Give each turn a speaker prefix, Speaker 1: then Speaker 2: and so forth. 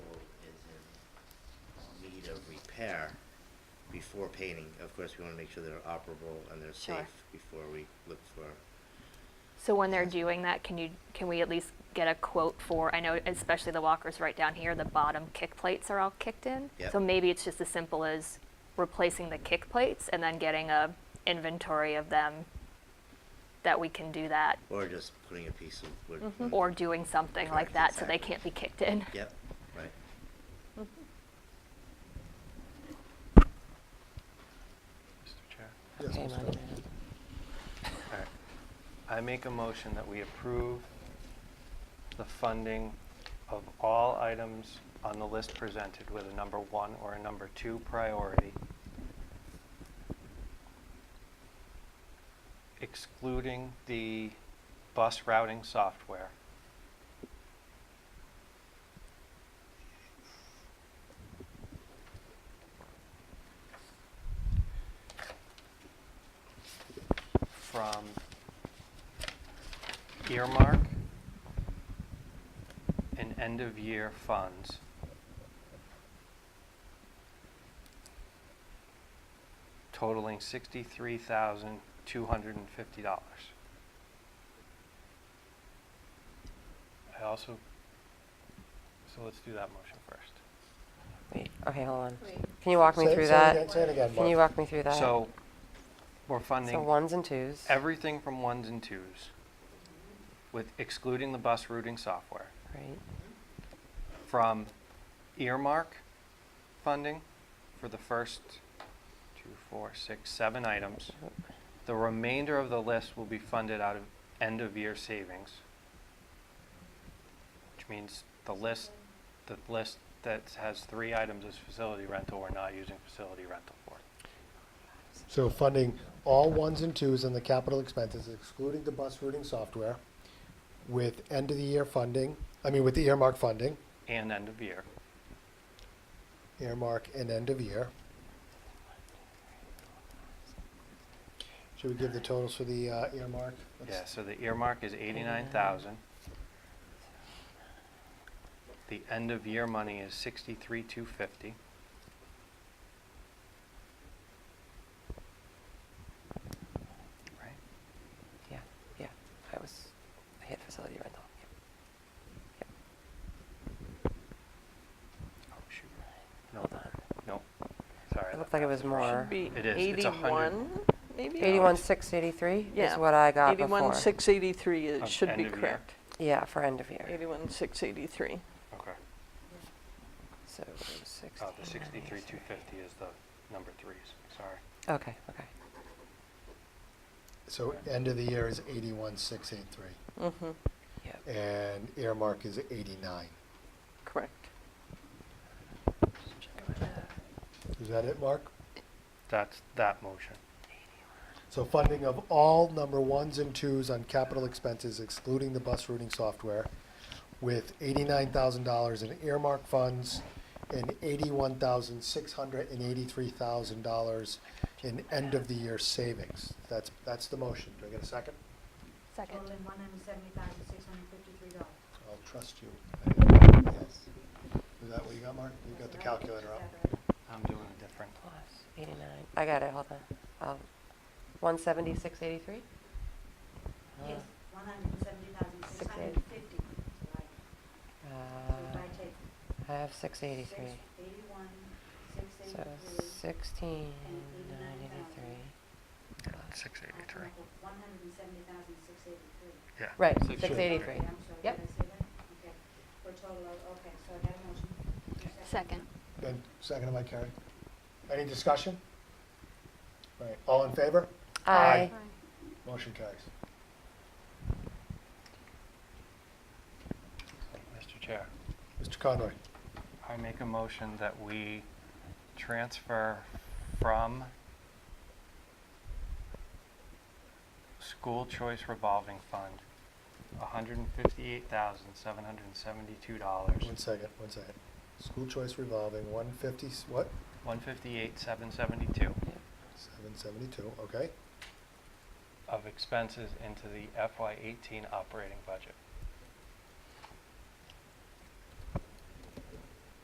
Speaker 1: uh, repair before painting. Of course, we wanna make sure they're operable and they're
Speaker 2: Sure.
Speaker 1: safe before we look for,
Speaker 2: So when they're doing that, can you, can we at least get a quote for, I know especially the walkers right down here, the bottom kick plates are all kicked in.
Speaker 1: Yep.
Speaker 2: So maybe it's just as simple as replacing the kick plates and then getting a inventory of them that we can do that.
Speaker 1: or just putting a piece of wood.
Speaker 2: Or doing something like
Speaker 1: Hmm. Correct,
Speaker 2: that so they
Speaker 1: exactly.
Speaker 2: can't be kicked in.
Speaker 1: Yep, right.
Speaker 3: Mr. Chair.
Speaker 4: Hang on a minute.
Speaker 3: All right. I make a motion that we approve the funding of all items on the list presented with a number one or a number two priority, excluding the bus routing software. from earmark and end-of-year funds. Totaling sixty-three thousand, two hundred and fifty dollars. I also, so let's do that motion first.
Speaker 4: Wait, okay, hold on.
Speaker 5: Wait.
Speaker 4: Can you walk me
Speaker 6: Say-
Speaker 4: through
Speaker 6: say it again-
Speaker 4: that?
Speaker 6: Say it again,
Speaker 4: Can you
Speaker 6: Mark.
Speaker 4: walk me through that?
Speaker 3: So, we're
Speaker 4: So
Speaker 3: funding
Speaker 4: ones and twos.
Speaker 3: everything from ones and twos, with excluding the bus routing software.
Speaker 4: Right,
Speaker 3: from earmark funding for the first two, four, six, seven items.
Speaker 4: Yep.
Speaker 3: The remainder of the list will be funded out of end-of-year savings, which means the list, the list that has three items is facility rental, we're not using facility rental for.
Speaker 6: So funding all ones and twos in the capital expenses excluding the bus routing software with end of the year funding, I mean with the earmark funding,
Speaker 3: And end-of-year,
Speaker 6: earmark and end of year. Should we give the totals for the uh, earmark? Let's-
Speaker 3: yeah, so the earmark is eighty-nine thousand. The end-of-year money is sixty-three, two fifty. Right?
Speaker 4: yeah, yeah. I was, I hit facility rental. Yep.
Speaker 3: Oh, shoot.
Speaker 4: Yep.
Speaker 3: No,
Speaker 4: Hold on.
Speaker 3: no, sorry.
Speaker 4: It looked like it was more.
Speaker 5: Should be
Speaker 3: It is. It's a hundred.
Speaker 5: 81, maybe? Oh,
Speaker 4: Eighty-one, six eighty-three
Speaker 5: Yeah.
Speaker 4: is what I got before.
Speaker 5: 81, 683
Speaker 3: Of
Speaker 5: it should be
Speaker 3: end of year.
Speaker 5: correct.
Speaker 4: Yeah, for end of year.
Speaker 5: 81, 683.
Speaker 3: Okay.
Speaker 4: So sixty.
Speaker 3: Oh, the sixty-three, two fifty is the number threes, sorry.
Speaker 4: Okay, okay.
Speaker 6: So end of the year is eighty-one, six, eight, three,
Speaker 5: Mm-hmm,
Speaker 4: Yep.
Speaker 6: and earmark is eighty-nine.
Speaker 5: correct.
Speaker 6: Is that it, Mark?
Speaker 3: That's that motion.
Speaker 6: So funding of all number ones and twos on capital expenses excluding the bus routing software with eighty-nine thousand dollars in earmark funds and eighty-one thousand, six hundred and eighty-three thousand dollars in end-of-the-year savings. That's, that's the motion. Do I get a second?
Speaker 2: Second.
Speaker 7: Total in one hundred seventy thousand, six hundred fifty-three dollars.
Speaker 6: I'll trust you. Yes. Is that what you got, Mark? You got the calculator up?
Speaker 3: I'm doing a different.
Speaker 4: Plus eighty-nine. I got it, hold on. Um, one seventy, six eighty-three?
Speaker 7: Yes, one hundred seventy thousand, six hundred fifty.
Speaker 4: Uh,
Speaker 7: So if I take
Speaker 4: I have six
Speaker 7: six
Speaker 4: eighty-three.
Speaker 7: eighty-one, six
Speaker 4: So
Speaker 7: eighty-three.
Speaker 4: sixteen, nine eighty-three.
Speaker 3: Six
Speaker 7: One hundred seventy thousand, six eighty-three.
Speaker 3: yeah.
Speaker 4: Right,
Speaker 3: Six
Speaker 4: six eighty-three.
Speaker 7: I'm sorry,
Speaker 4: Yep.
Speaker 7: did I say that? Okay, for a total of, okay, so I got a motion. Your
Speaker 2: Second.
Speaker 6: Good. Seconded by Carrie. Any discussion? All right, all in favor?
Speaker 4: I,
Speaker 6: Aye. Motion carries.
Speaker 3: Mr. Chair,
Speaker 6: Mr. Conroy?
Speaker 3: I make a motion that we transfer from school choice revolving fund, hundred and fifty-eight thousand, seven hundred and seventy-two dollars.
Speaker 6: One second, one second. School choice revolving, one fifty, what?
Speaker 3: One fifty-eight, seven seventy-two
Speaker 6: Seven seventy-two, okay.
Speaker 3: of expenses into the FY eighteen operating budget.